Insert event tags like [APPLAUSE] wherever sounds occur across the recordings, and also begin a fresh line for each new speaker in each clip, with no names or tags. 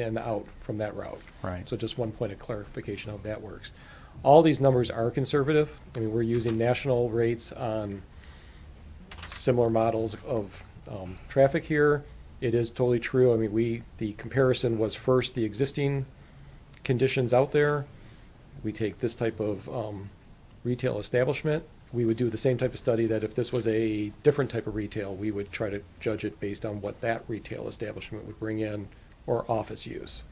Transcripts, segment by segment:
in and out from that route.
Right.
So just one point of clarification how that works. All these numbers are conservative. I mean, we're using national rates on similar models of um, traffic here. It is totally true. I mean, we, the comparison was first the existing conditions out there. We take this type of um, retail establishment. We would do the same type of study that if this was a different type of retail, we would try to judge it based on what that retail establishment would bring in or office use.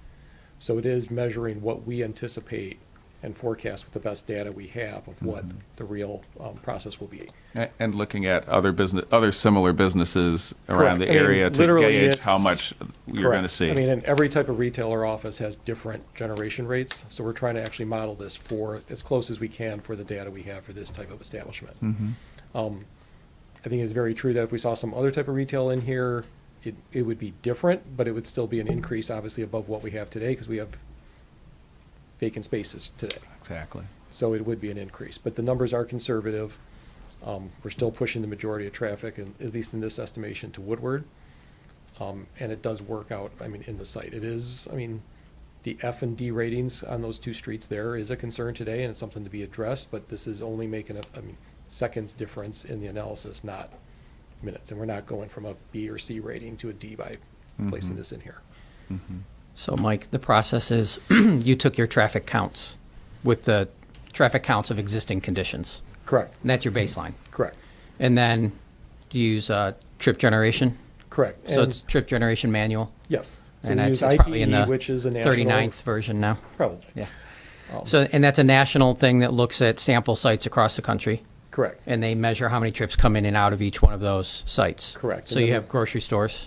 So it is measuring what we anticipate and forecast with the best data we have of what the real um, process will be.
A- And looking at other business, other similar businesses
Correct.
around the
I mean,
area to
literally
gauge how
it's-
much you're going
Correct.
to see.
I mean, and every type of retail or office has different generation rates, so we're trying to actually model this for, as close as we can for the data we have for this type of establishment.
Mm-hmm.
Um, I think it's very true that if we saw some other type of retail in here, it, it would be different, but it would still be an increase, obviously, above what we have today, because we have vacant spaces today.
Exactly.
So it would be an increase, but the numbers are conservative. Um, We're still pushing the majority of traffic, and at least in this estimation, to Woodward. Um, And it does work out, I mean, in the site. It is, I mean, the F and D ratings on those two streets there is a concern today, and it's something to be addressed, but this is only making a, I mean, seconds difference in the analysis, not minutes. And we're not going from a B or C rating to a D by
Mm-hmm.
placing this in here.
So, Mike, the process is [CLEARS THROAT] you took your traffic counts with the traffic counts of existing conditions,
Correct,
and that's your baseline.
correct,
And then you use uh, trip generation.
correct.
So
And-
it's trip generation manual.
Yes. So
and
we
that's
use
it's probably in
ITE,
the
which is a national. Oh.
39th version now.
Probably,
Yeah. So, and that's a national thing that looks at sample sites across the country,
correct.
and they measure how many trips come in and out of each one of those sites.
Correct.
So
And
you
then-
have grocery stores.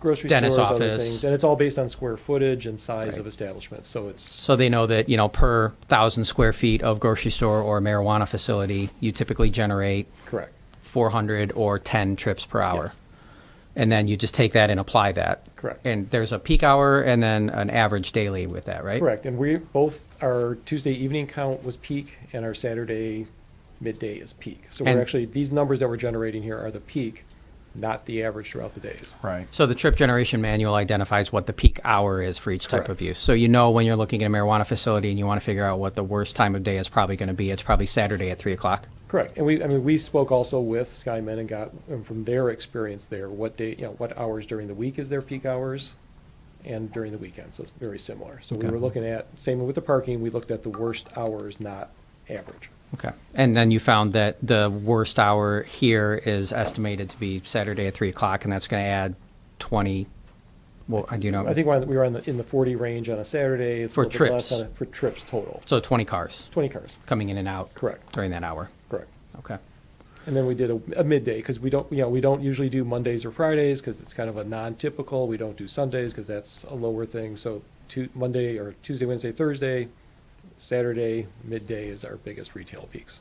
Grocery
dentist
stores, other
office.
things, and it's all based on square footage and size of
Right.
establishments, so it's,
So they know that, you know, per thousand square feet of grocery store or marijuana facility, you typically generate
correct,
400 or 10 trips per hour.
Yes.
And then you just take that and apply that.
Correct.
And there's a peak hour and then an average daily with that, right?
correct. And we, both, our Tuesday evening count was peak, and our Saturday midday is peak. So we're
And-
actually, these numbers that we're generating here are the peak, not the average throughout the days.
Right.
So the trip generation manual identifies what the peak hour is for each type
Correct.
of use. So you know when you're looking at a marijuana facility and you want to figure out what the worst time of day is probably going to be, it's probably Saturday at 3 o'clock.
Correct, and we, I mean, we spoke also with Skymen and got, um, from their experience there, what day, you know, what hours during the week is their peak hours and during the weekend, so it's very similar. So we
Okay.
were looking at, same with the parking, we looked at the worst hours, not average.
Okay. And then you found that the worst hour here is estimated to be Saturday at 3 o'clock, and that's going to add 20. Well, I do know.
I think we're on- we were in the, in the 40 range on a Saturday. it's a
For
little bit less
trips.
on a- For trips total,
so 20 cars
20 cars,
coming in and out
Correct.
during that hour.
correct.
Okay.
And then we did a a midday, because we don't, you know, we don't usually do Mondays or Fridays, because it's kind of a non-typical. We don't do Sundays, because that's a lower thing. So Tu- Monday or Tuesday, Wednesday, Thursday, Saturday, midday is our biggest retail peaks.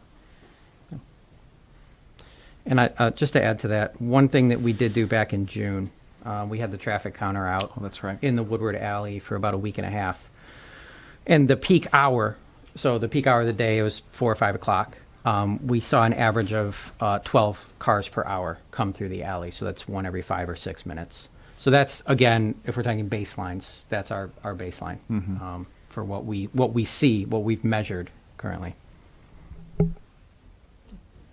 And I, uh, just to add to that, one thing that we did do back in June, uh, we had the traffic counter out.
Oh, that's right.
In the Woodward Alley for about a week and a half. And the peak hour, so the peak hour of the day was four or five o'clock. Um, we saw an average of uh, 12 cars per hour come through the alley. So that's one every five or six minutes. So that's, again, if we're talking baselines, that's our, our baseline
Mm-hmm.
um, for what we, what we see, what we've measured currently.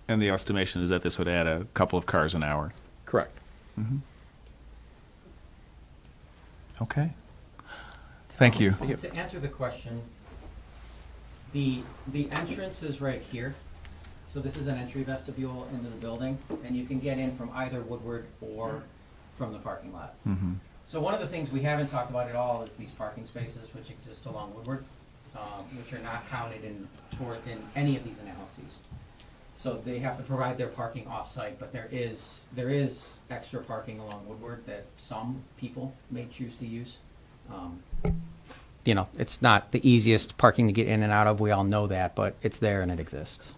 And the estimation is that this would add a couple of cars an hour.
Correct.
Okay. Thank you.
To answer the question, the, the entrance is right here. So this is an entry vestibule into the building, and you can get in from either Woodward or from the parking lot.
Mm-hmm.
So one of the things we haven't talked about at all is these parking spaces which exist along Woodward, um, which are not counted in, toward, in any of these analyses. So they have to provide their parking off-site, but there is, there is extra parking along Woodward that some people may choose to use. Um, you know, it's not the easiest parking to get in and out of. We all know that, but it's there and it exists.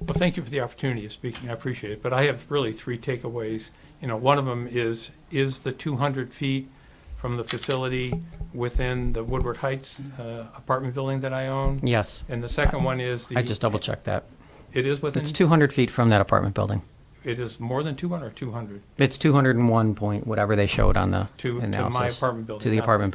Well, thank you for the opportunity of speaking. I appreciate it. But I have really three takeaways. You know, one of them is, is the 200 feet from the facility within the Woodward Heights uh, apartment building that I own?
Yes.
And the second one is the.
I just double checked that.
It is within,
It's 200 feet from that apartment building.
it is more than 200 or 200
It's 201 point, whatever they showed on the
to, to my
analysis.
apartment building.
To the
not-
apartment